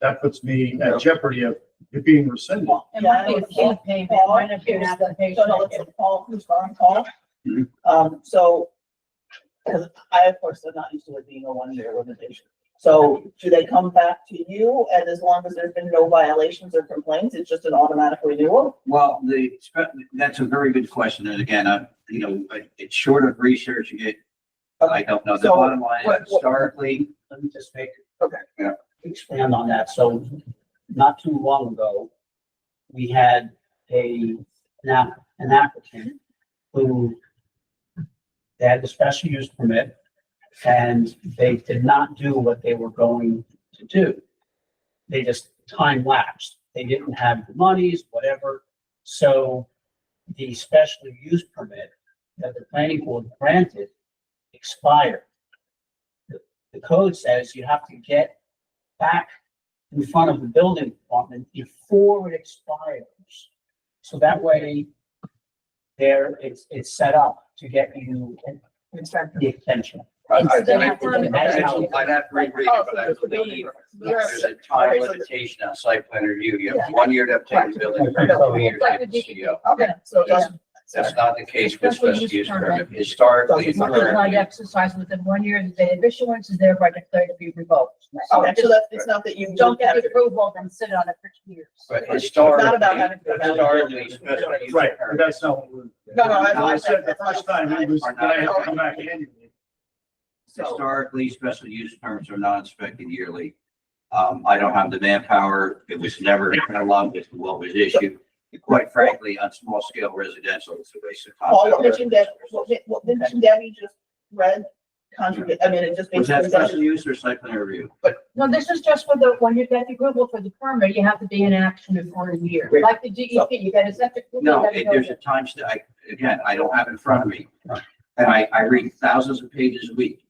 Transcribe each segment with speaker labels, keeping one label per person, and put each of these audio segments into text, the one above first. Speaker 1: that puts me at jeopardy of it being rescinded.
Speaker 2: It might be a full payment, it might not be an application.
Speaker 3: So no, it's a call, who's on call?
Speaker 1: Mhm.
Speaker 3: Um, so, because I, of course, am not used to it being a one-year limitation. So do they come back to you? And as long as there's been no violations or complaints, it's just an automatic renewal?
Speaker 4: Well, the, that's a very good question. And again, I, you know, I- it's short of researching it. I don't know. The
Speaker 3: So,
Speaker 4: bottom line
Speaker 3: what-
Speaker 4: is
Speaker 3: what-
Speaker 4: historically,
Speaker 5: let me just make.
Speaker 3: Okay.
Speaker 4: Yeah.
Speaker 5: Expand on that. So not too long ago, we had a, an app- an applicant who they had the special use permit and they did not do what they were going to do. They just time lapsed. They didn't have the monies, whatever. So the special use permit that the planning board granted expired the code says you have to get back in front of the building department before it expires. So that way there, it's, it's set up to get you the extension.
Speaker 4: I- I-
Speaker 2: Instead
Speaker 4: I-
Speaker 2: of permanent.
Speaker 4: I- I'd have to reread
Speaker 3: Oh,
Speaker 4: it, but I believe there's a time
Speaker 3: Okay, so-
Speaker 4: limitation on site plan review. You have one year to obtain the building permit, two years to get the CO.
Speaker 3: Okay, so it doesn't,
Speaker 4: That's not the case with
Speaker 2: Special
Speaker 4: special
Speaker 2: use
Speaker 4: use
Speaker 2: permit.
Speaker 4: permit. Historically,
Speaker 3: Doesn't
Speaker 4: and
Speaker 3: work.
Speaker 2: Right,
Speaker 4: currently,
Speaker 2: exercise within one year of the date of issuance is thereby declared to be revoked.
Speaker 3: okay, so that, it's not that you
Speaker 2: Don't
Speaker 3: don't
Speaker 2: get
Speaker 3: have
Speaker 2: the
Speaker 3: it.
Speaker 2: approval, then sit on it for two years.
Speaker 4: but
Speaker 3: It's not about
Speaker 4: historically,
Speaker 3: having-
Speaker 4: historically, special use
Speaker 1: Right,
Speaker 4: permit.
Speaker 1: but that's not what we're.
Speaker 3: No, no, that's
Speaker 1: When
Speaker 3: what
Speaker 1: I
Speaker 3: I
Speaker 1: said
Speaker 3: said.
Speaker 1: the first time, it was, that I have to come back annually.
Speaker 3: So-
Speaker 4: Historically, special use permits are not inspected yearly. Um, I don't have the manpower. It was never cataloged with what was issued. And Quite frankly, on small scale residential, it's a waste of time.
Speaker 3: All the mention that, what, what mention Debbie just read, contradict, I mean, it just
Speaker 4: Was that
Speaker 3: basically
Speaker 4: special
Speaker 3: doesn't.
Speaker 4: use or site plan review?
Speaker 2: No, this is just for the, when you get the approval for the permit, you have to be in action before a year. Like the DEP, you get a septic. permit,
Speaker 4: No,
Speaker 2: you
Speaker 4: it-
Speaker 2: gotta
Speaker 4: there's
Speaker 2: go
Speaker 4: a time, st- I, again, I don't have it in front of me. And I, I read thousands of pages a week.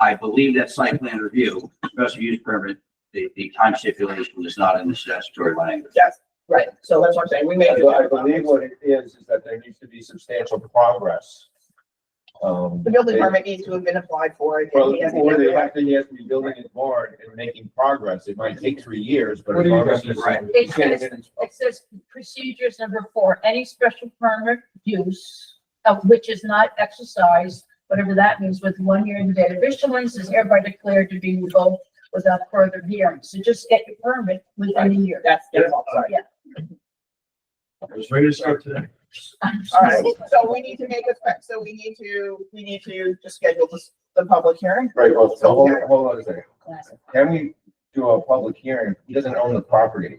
Speaker 4: I believe that site plan review, special use permit, the, the time stipulation is not in the statutory language.
Speaker 3: Yes, right, so that's what I'm saying, we made.
Speaker 6: I believe what it is, is that there needs to be substantial progress. Um,
Speaker 3: The building
Speaker 6: they-
Speaker 3: permit needs to have been applied for. it
Speaker 6: Well,
Speaker 3: has to be
Speaker 6: or they
Speaker 3: done.
Speaker 6: have to, he has to be building his barn and making progress. It might take three years, but.
Speaker 5: What do you
Speaker 6: progress
Speaker 5: guys
Speaker 6: is-
Speaker 4: think?
Speaker 6: you can't
Speaker 2: It's-
Speaker 6: even-
Speaker 2: It says procedures number four, any special permit use of which is not exercised, whatever that means, with one year in the date of issuance is hereby declared to be revoked without further hearing. So just get your permit within a year.
Speaker 3: That's, that's all, sorry.
Speaker 2: Yeah.
Speaker 1: I was ready to start today.
Speaker 3: All right, so we need to make a, spec- so we need to, we need to just schedule this, the public hearing.
Speaker 6: Right, well, so hold, hold on a second. Can we do a public hearing? He doesn't own the property.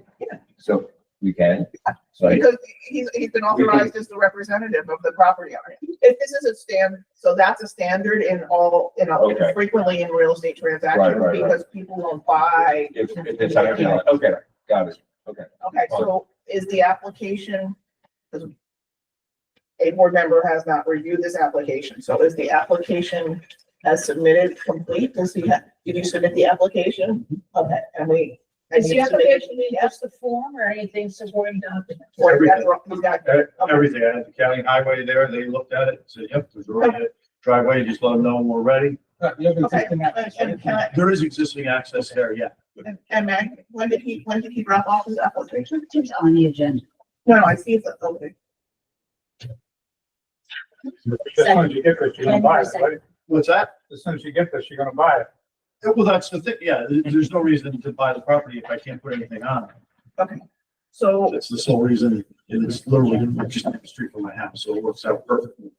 Speaker 6: So we can, so I-
Speaker 3: Because he's, he's been authorized as the representative of the property owner. If this is a stand, so that's a standard in all, in, all-
Speaker 6: Okay.
Speaker 3: frequently in real estate
Speaker 6: Right,
Speaker 3: transactions
Speaker 6: right, right.
Speaker 3: because people don't buy.
Speaker 6: if, if it's, okay, got it.
Speaker 3: Okay, so is the application? A board member has not reviewed this application, so is the application as submitted complete? Does he have, did you submit the application? Okay, and we. and
Speaker 2: Is the
Speaker 3: you submitted-
Speaker 2: application in just the form or anything supporting document?
Speaker 3: Or is that wrong? He's got-
Speaker 1: E- Everything, I had the county highway there, they looked at it, and said, yep, there's already a driveway, just let them know when we're ready.
Speaker 3: Okay, and- and can I-
Speaker 1: There is existing access there, yeah.
Speaker 3: and- And Meg, when did he, when did he drop off his application?
Speaker 2: It's on the agenda.
Speaker 3: No, no, I see it's, okay,
Speaker 7: As soon as you get this, you're gonna buy it, right?
Speaker 1: What's that?
Speaker 7: As soon as you get this, you're gonna buy it.
Speaker 1: Yeah, Well, that's the thing, yeah, there- there's no reason to buy the property if I can't put anything on it.
Speaker 3: okay. So,
Speaker 1: That's the sole reason, and it's literally just up the street from my house, so it works out perfectly.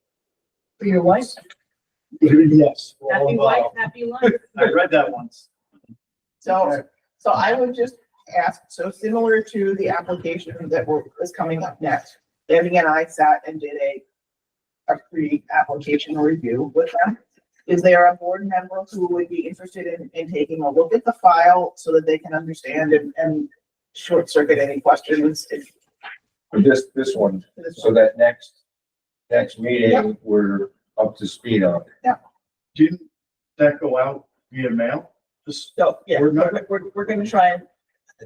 Speaker 2: For your wife,
Speaker 1: Yes.
Speaker 2: happy wife,
Speaker 7: uh,
Speaker 2: happy life.
Speaker 1: uh, I read that once.
Speaker 3: so, so I would just ask, so similar to the application that we're, is coming up next. Debbie and I sat and did a, a pre-application review with them. Is there a board member who would be interested in, in taking a look at the file so that they can understand and, and short circuit any questions? if-
Speaker 6: For this, this one, so that next, next meeting, we're up to speed on. it.
Speaker 1: Didn't that go out via mail? This,
Speaker 3: So, yeah,
Speaker 1: We're
Speaker 3: we're,
Speaker 1: not-
Speaker 3: we're, we're gonna try and,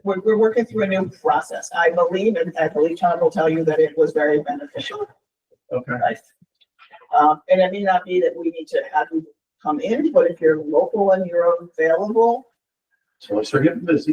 Speaker 3: we're, we're working through a new process, I believe, and I believe Tom will tell you that it was very beneficial.
Speaker 1: okay.
Speaker 3: Nice. Um, and it may not be that we need to have you come in, but if you're local and you're available,
Speaker 1: So I start getting busy.